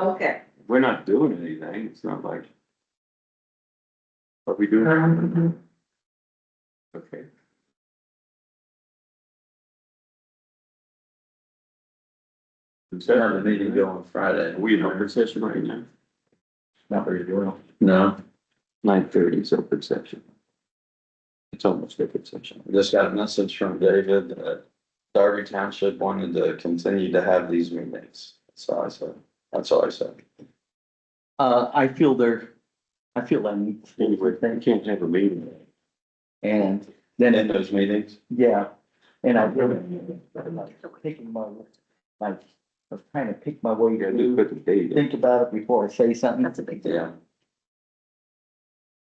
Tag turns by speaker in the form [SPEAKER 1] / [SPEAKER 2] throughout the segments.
[SPEAKER 1] Okay.
[SPEAKER 2] We're not doing anything, it's not like. But we do,
[SPEAKER 1] Um,
[SPEAKER 2] okay.
[SPEAKER 3] Another meeting going Friday.
[SPEAKER 2] Are we in open session right now?
[SPEAKER 3] Not very well. No,
[SPEAKER 2] Nine thirty is open session. It's almost open session.
[SPEAKER 3] I just got a message from David that Darby Township wanted to continue to have these meetings. That's all I said. That's all I said.
[SPEAKER 4] Uh, I feel there, I feel that need to be
[SPEAKER 2] Anyway, you can't have a meeting.
[SPEAKER 4] and
[SPEAKER 3] And
[SPEAKER 4] then,
[SPEAKER 3] in
[SPEAKER 4] it-
[SPEAKER 3] those meetings,
[SPEAKER 4] yeah, and I really, I'm like picking my, like, I was trying to pick my way
[SPEAKER 2] You gotta
[SPEAKER 4] to
[SPEAKER 2] put the date. in.
[SPEAKER 4] think about it before I say something.
[SPEAKER 1] That's a big deal.
[SPEAKER 3] yeah.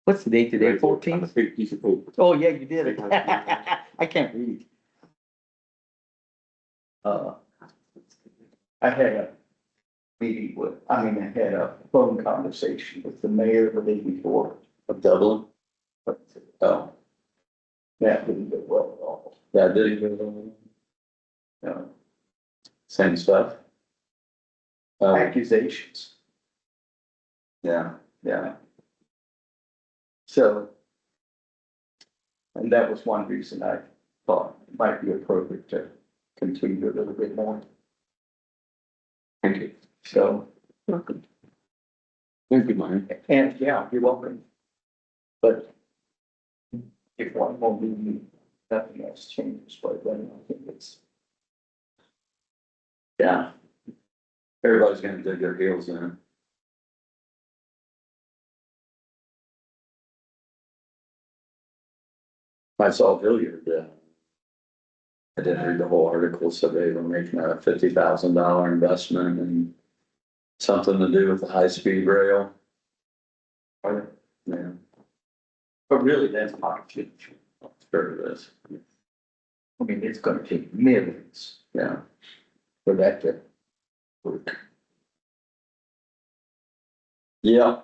[SPEAKER 4] What's the date today,
[SPEAKER 2] On a
[SPEAKER 4] fourteenth?
[SPEAKER 2] big piece of paper.
[SPEAKER 4] Oh, yeah, you did it. I can't read. Uh, I had a meeting with, I mean, I had a phone conversation with the mayor the day before,
[SPEAKER 3] Of Dublin?
[SPEAKER 4] but
[SPEAKER 3] Oh,
[SPEAKER 4] that didn't go well Uh, at all.
[SPEAKER 3] yeah, did he go to-
[SPEAKER 4] No.
[SPEAKER 3] Same stuff. Um,
[SPEAKER 4] accusations.
[SPEAKER 3] yeah,
[SPEAKER 4] Yeah. So. And that was one reason I thought it might be appropriate to continue a little bit more.
[SPEAKER 2] Thank you.
[SPEAKER 4] So,
[SPEAKER 1] Welcome.
[SPEAKER 2] Thank you, Mike.
[SPEAKER 4] and yeah, you're welcome. But if one more meeting, nothing else changes, but then I think it's. Yeah,
[SPEAKER 3] everybody's gonna dig their heels in. I saw Villiard, yeah. I didn't read the whole article, so they were making a fifty thousand dollar investment and something to do with the high-speed rail.
[SPEAKER 4] Are
[SPEAKER 3] Yeah,
[SPEAKER 4] but really, that's not future.
[SPEAKER 3] sure it is,
[SPEAKER 4] I mean, it's gonna take millions
[SPEAKER 3] yeah.
[SPEAKER 4] for that to work.
[SPEAKER 3] Yeah.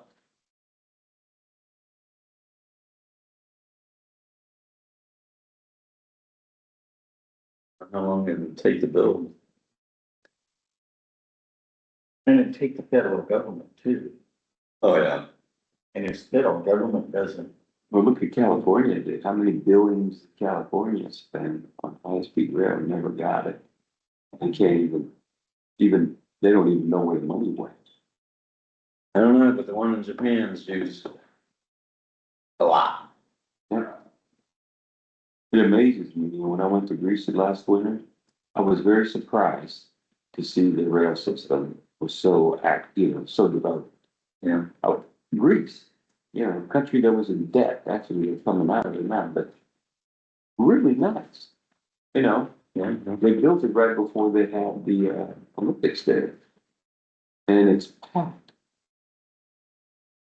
[SPEAKER 3] How long did it take to build?
[SPEAKER 4] And it'd take the federal government too,
[SPEAKER 3] Oh, yeah.
[SPEAKER 4] and if federal government doesn't,
[SPEAKER 2] Well, look at California, dude. how many billions California spent on high-speed rail, and never got it. They can't even, even, they don't even know where the money went.
[SPEAKER 3] I don't know, but the one in Japan's used a lot.
[SPEAKER 2] It amazes me, you know, when I went to Greece last winter, I was very surprised to see the rail system was so act, you know, so developed.
[SPEAKER 3] Yeah.
[SPEAKER 2] Out, Greece, you know, a country that was in debt, actually, it's coming out of it now, but really nice. You know,
[SPEAKER 3] Yeah.
[SPEAKER 2] they built it right before they had the uh, Olympics there. And it's packed.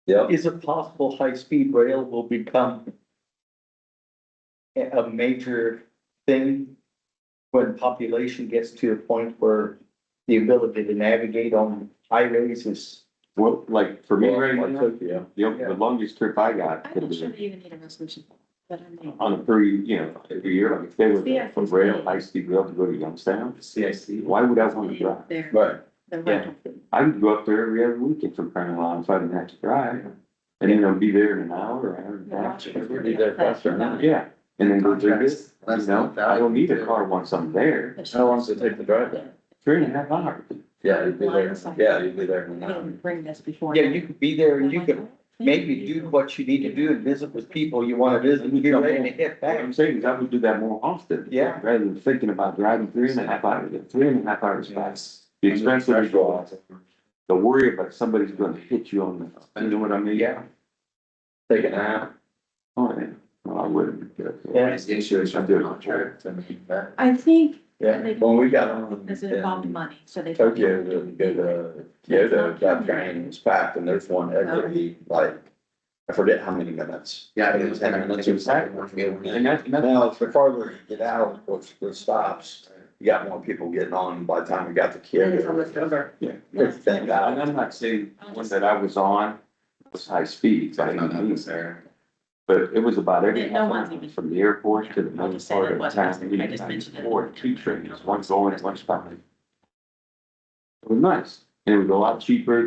[SPEAKER 3] Yep,
[SPEAKER 4] is it possible high-speed rail will become a, a major thing when population gets to a point where the ability to navigate on highways is,
[SPEAKER 2] Well, like for me right
[SPEAKER 3] Like
[SPEAKER 2] now,
[SPEAKER 3] Tokyo.
[SPEAKER 2] the, the longest trip I got.
[SPEAKER 1] I'm not sure that you even need a resolution, but I mean.
[SPEAKER 2] on a per, you know, every year, like if they were
[SPEAKER 1] Yeah.
[SPEAKER 2] from rail, high speed rail to go to Youngstown,
[SPEAKER 3] CIC.
[SPEAKER 2] why would I want to drive?
[SPEAKER 1] They're,
[SPEAKER 3] Right,
[SPEAKER 1] they're
[SPEAKER 4] yeah.
[SPEAKER 1] right.
[SPEAKER 2] I would go up there every other weekend from Crown Line if I didn't have to drive. And then I'll be there in an hour, or hour and a half.
[SPEAKER 3] Rochester. be there faster now.
[SPEAKER 2] Yeah, and then go do this, you
[SPEAKER 3] That's
[SPEAKER 2] know,
[SPEAKER 3] not bad.
[SPEAKER 2] I don't need a car once I'm there,
[SPEAKER 3] How long does it take to drive there?
[SPEAKER 2] three and a half hours.
[SPEAKER 3] yeah, you'd be there, yeah, you'd be there in an hour.
[SPEAKER 1] Bring this before.
[SPEAKER 4] yeah, you could be there and you could maybe do what you need to do and visit with people you wanna visit, and you're ready to hit
[SPEAKER 2] What
[SPEAKER 4] back.
[SPEAKER 2] I'm saying is I would do that more often.
[SPEAKER 4] Yeah.
[SPEAKER 2] Rather than thinking about driving three and a half hours, three and a half hours back. The expense of the, the worry about somebody's gonna hit you on the, you know what I mean?
[SPEAKER 4] Yeah.
[SPEAKER 3] Take a nap.
[SPEAKER 2] Oh, yeah, well, I wouldn't.
[SPEAKER 4] Yeah.
[SPEAKER 3] The issue is
[SPEAKER 2] I'm doing a trip
[SPEAKER 1] I think. they
[SPEAKER 3] When we got on.
[SPEAKER 1] Does it involve
[SPEAKER 3] in-
[SPEAKER 1] money, so they.
[SPEAKER 3] Tokyo, to go to Kyoto, that train was packed and there's one every, like, I forget how many minutes. Yeah, it was ten minutes or something.
[SPEAKER 2] And that's, and that's
[SPEAKER 3] Now, the farther you get out, of course, the stops, you got more people getting on by the time we got to
[SPEAKER 1] It is almost
[SPEAKER 3] Kyoto.
[SPEAKER 1] over.
[SPEAKER 2] Yeah.
[SPEAKER 3] It's thank
[SPEAKER 2] And
[SPEAKER 3] God.
[SPEAKER 2] I'm not saying the one that I was on was high speed, by any means, but it was about every
[SPEAKER 1] No
[SPEAKER 2] half
[SPEAKER 1] one's
[SPEAKER 2] hour
[SPEAKER 1] even-
[SPEAKER 2] from the airport to the
[SPEAKER 1] Yeah, I'll
[SPEAKER 2] main
[SPEAKER 1] just say
[SPEAKER 2] part
[SPEAKER 1] that
[SPEAKER 2] of
[SPEAKER 1] wasn't-
[SPEAKER 2] town.
[SPEAKER 1] I just mentioned it.
[SPEAKER 2] Or two trains, one going, one's coming. It was nice. And it was a lot cheaper